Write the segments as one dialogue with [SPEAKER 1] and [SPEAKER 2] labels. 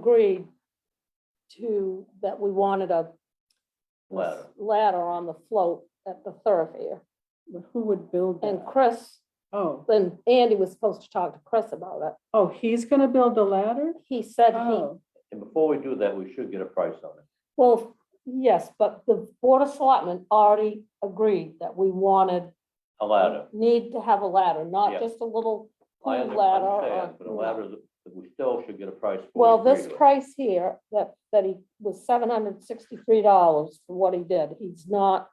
[SPEAKER 1] agreed to, that we wanted a
[SPEAKER 2] Ladder.
[SPEAKER 1] ladder on the float at the thoroughfare.
[SPEAKER 3] But who would build
[SPEAKER 1] And
[SPEAKER 3] that?
[SPEAKER 1] Chris,
[SPEAKER 3] Oh,
[SPEAKER 1] then Andy was supposed to talk to Chris about it.
[SPEAKER 3] oh, he's gonna build the ladder?
[SPEAKER 1] He said he,
[SPEAKER 3] Oh,
[SPEAKER 2] And before we do that, we should get a price on it.
[SPEAKER 1] well, yes, but the Board of Selectmen already agreed that we wanted,
[SPEAKER 2] A ladder.
[SPEAKER 1] need to have a ladder,
[SPEAKER 2] Yeah.
[SPEAKER 1] not just a little
[SPEAKER 2] I
[SPEAKER 1] pool
[SPEAKER 2] under-
[SPEAKER 1] Mm, ladder.
[SPEAKER 2] understand,
[SPEAKER 1] or-
[SPEAKER 2] But a ladder that that we still should get a price. for, we
[SPEAKER 1] Well, this
[SPEAKER 2] agree to it.
[SPEAKER 1] price here, that, that he was seven hundred sixty-three dollars for what he did, he's not,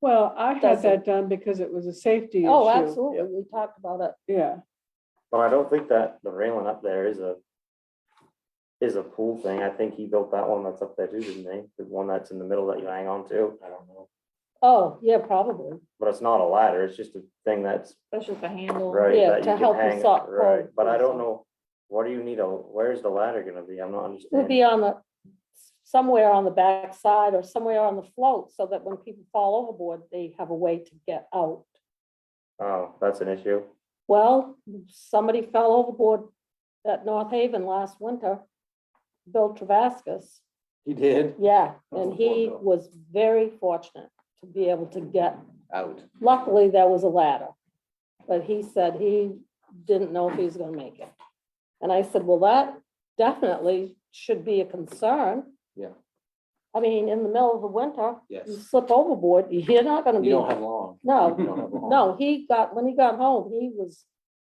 [SPEAKER 3] well, I had
[SPEAKER 1] Doesn't-
[SPEAKER 3] that done because it was a safety issue.
[SPEAKER 1] oh, absolutely, we talked about it.
[SPEAKER 3] Yeah,
[SPEAKER 4] But I don't think that the railing up there is a, is a pool thing. I think he built that one that's up there too, didn't he? The one that's in the middle that you hang on to. I don't know.
[SPEAKER 1] Oh, yeah, probably.
[SPEAKER 4] But it's not a ladder. It's just a thing that's,
[SPEAKER 5] That's just a handle.
[SPEAKER 4] right,
[SPEAKER 1] Yeah,
[SPEAKER 4] that
[SPEAKER 1] to
[SPEAKER 4] you can
[SPEAKER 1] help you
[SPEAKER 4] hang,
[SPEAKER 1] suck,
[SPEAKER 4] right?
[SPEAKER 1] right,
[SPEAKER 4] But I
[SPEAKER 1] yeah.
[SPEAKER 4] don't know, what do you need a, where's the ladder gonna be? I'm not
[SPEAKER 1] It'll
[SPEAKER 4] understanding.
[SPEAKER 1] be on the, somewhere on the backside or somewhere on the float, so that when people fall overboard, they have a way to get out.
[SPEAKER 4] Oh, that's an issue.
[SPEAKER 1] Well, somebody fell overboard at North Haven last winter, Bill Travascus.
[SPEAKER 4] He did?
[SPEAKER 1] Yeah, and he
[SPEAKER 2] Oh, Bill.
[SPEAKER 1] was very fortunate to be able to get,
[SPEAKER 2] Out.
[SPEAKER 1] luckily, there was a ladder. But he said he didn't know if he was gonna make it. And I said, well, that definitely should be a concern.
[SPEAKER 6] Yeah.
[SPEAKER 1] I mean, in the middle of the winter, you
[SPEAKER 6] Yes,
[SPEAKER 1] slip overboard, you're not gonna be,
[SPEAKER 6] you don't have
[SPEAKER 1] no,
[SPEAKER 6] long. You don't have long.
[SPEAKER 1] Oh. no, he got, when he got home, he was,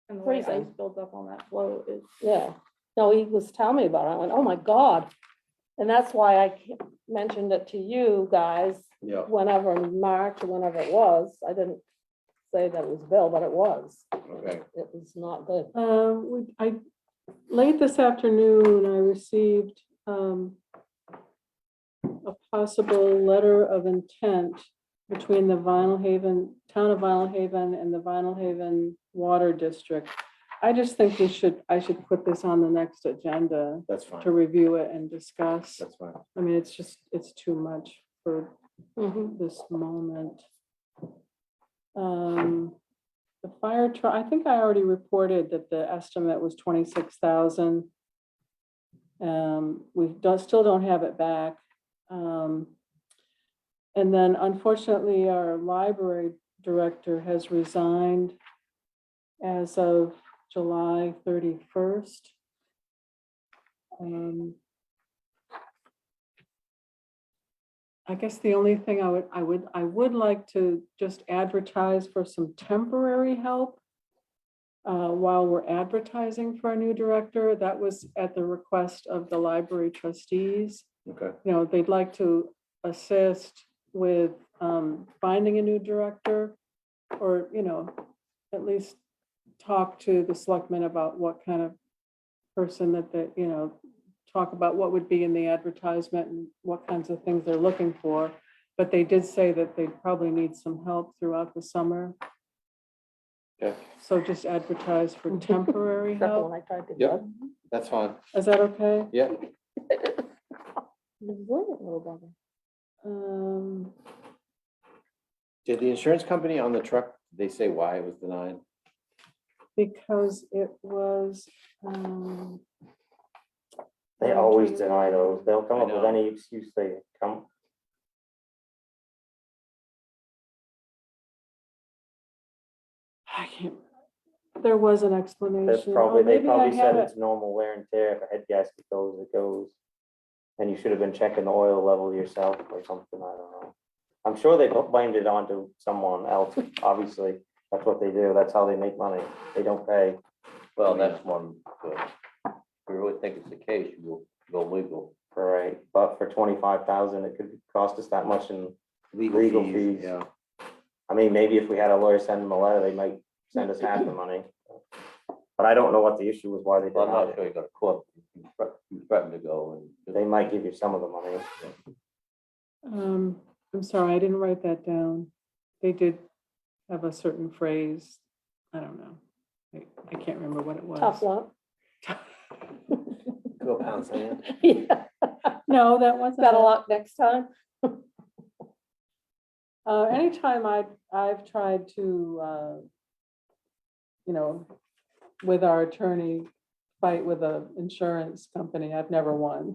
[SPEAKER 5] And the way
[SPEAKER 1] Freezing.
[SPEAKER 5] ice builds up on that float is.
[SPEAKER 1] yeah. No, he was telling me about it, I went, oh my God. And that's why I ca- mentioned it to you guys
[SPEAKER 6] Yeah,
[SPEAKER 1] whenever in March or whenever it was, I didn't say that it was Bill, but it was.
[SPEAKER 6] okay.
[SPEAKER 1] It was not good.
[SPEAKER 3] uh, we, I, late this afternoon, I received, um, a possible letter of intent between the Vinyl Haven, Town of Vinyl Haven and the Vinyl Haven Water District. I just think we should, I should put this on the next agenda
[SPEAKER 6] That's
[SPEAKER 3] to
[SPEAKER 6] fine.
[SPEAKER 3] review it and discuss.
[SPEAKER 6] That's fine.
[SPEAKER 3] I mean, it's just, it's too much for this moment. Um, The fire truck, I think I already reported that the estimate was twenty-six thousand. Um, we don't, still don't have it back. Um, And then unfortunately, our library director has resigned as of July thirty-first. Um, I guess the only thing I would, I would, I would like to just advertise for some temporary help. uh, while we're advertising for a new director, that was at the request of the library trustees.
[SPEAKER 6] Okay.
[SPEAKER 3] You know, they'd like to assist with, um, finding a new director. Or, you know, at least talk to the selectmen about what kind of person that, they you know, talk about what would be in the advertisement and what kinds of things they're looking for. But they did say that they'd probably need some help throughout the summer.
[SPEAKER 6] Okay.
[SPEAKER 3] So just advertise for temporary
[SPEAKER 1] Except for
[SPEAKER 3] help.
[SPEAKER 1] when I tried to.
[SPEAKER 6] Yep. That's fine.
[SPEAKER 3] Is that okay?
[SPEAKER 6] Yeah.
[SPEAKER 1] Resilient little brother.
[SPEAKER 3] Um,
[SPEAKER 6] Did the insurance company on the truck, they say why it was denied?
[SPEAKER 3] because it was, um,
[SPEAKER 4] They always deny those. They'll come
[SPEAKER 6] I
[SPEAKER 4] up with
[SPEAKER 6] know.
[SPEAKER 4] any excuse they come.
[SPEAKER 3] I can't, there was an explanation.
[SPEAKER 4] That's
[SPEAKER 3] Oh,
[SPEAKER 4] probably, they
[SPEAKER 3] maybe I
[SPEAKER 4] probably
[SPEAKER 3] had
[SPEAKER 4] said
[SPEAKER 3] it.
[SPEAKER 4] it's normal wear and tear. If a head gasket goes, it goes. And you should have been checking the oil level yourself or something, I don't know. I'm sure they blamed it onto someone else, obviously. That's what they do. That's how they make money. They don't pay.
[SPEAKER 2] Well, that's one, but if we really think it's the case, we'll go legal.
[SPEAKER 4] Right, but for twenty-five thousand, it could cost us that much and, Legal fees.
[SPEAKER 6] Yeah,
[SPEAKER 4] I mean, maybe if we had a lawyer send them a letter, they might send us half the money. But I don't know what the issue was, why they
[SPEAKER 2] Well, I'm not
[SPEAKER 4] denied
[SPEAKER 2] sure
[SPEAKER 4] it.
[SPEAKER 2] you got a court, you threat- you threatened to go
[SPEAKER 4] They
[SPEAKER 2] and.
[SPEAKER 4] might give you some of the money.
[SPEAKER 3] Um, I'm sorry, I didn't write that down. They did have a certain phrase, I don't know. I- I can't remember what it
[SPEAKER 1] Tough
[SPEAKER 3] was.
[SPEAKER 1] luck.
[SPEAKER 6] go pound sand.
[SPEAKER 1] Yeah,
[SPEAKER 3] No, that wasn't.
[SPEAKER 1] better
[SPEAKER 3] it.
[SPEAKER 1] luck next time.
[SPEAKER 3] Uh, anytime I, I've tried to, uh, you know, with our attorney, fight with a insurance company. I've never won.